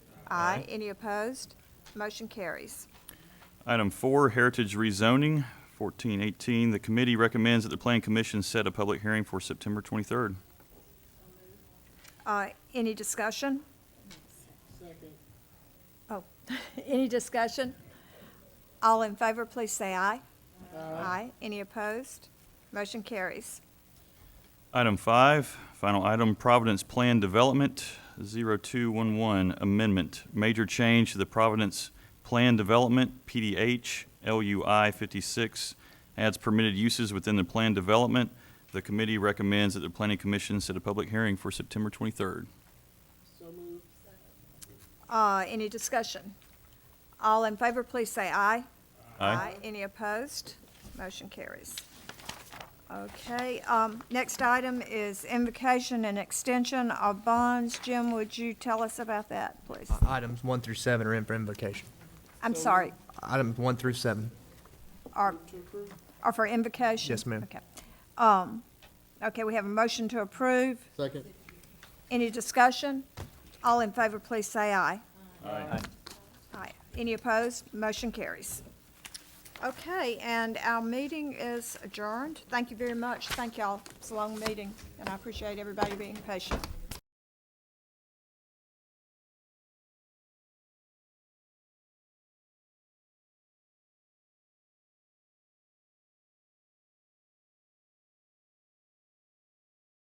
Aye. Any opposed? Motion carries. Item four, Heritage Rezoning, 1418. The committee recommends that the Plan Commission set a public hearing for September 23rd. Uh, Any discussion? Oh, any discussion? All in favor, please say aye. Aye. Any opposed? Motion carries. Item five, final item, Providence Plan Development, 0211, Amendment. Major change to the Providence Plan Development, PDH, LUI 56, adds permitted uses within the plan development. The committee recommends that the Planning Commission set a public hearing for September 23rd. Uh, Any discussion? All in favor, please say aye. Any opposed? Motion carries. Okay, um, next item is invocation and extension of bonds. Jim, would you tell us about that, please? Items one through seven are in for invocation. I'm sorry, Items one through seven. are, are for invocation? Yes, ma'am. Okay. Um, okay, we have a motion to approve. Second. Any discussion? All in favor, please say aye. Aye. Any opposed? Motion carries. Okay, and our meeting is adjourned. Thank you very much. Thank y'all. It's a long meeting, and I appreciate everybody being patient.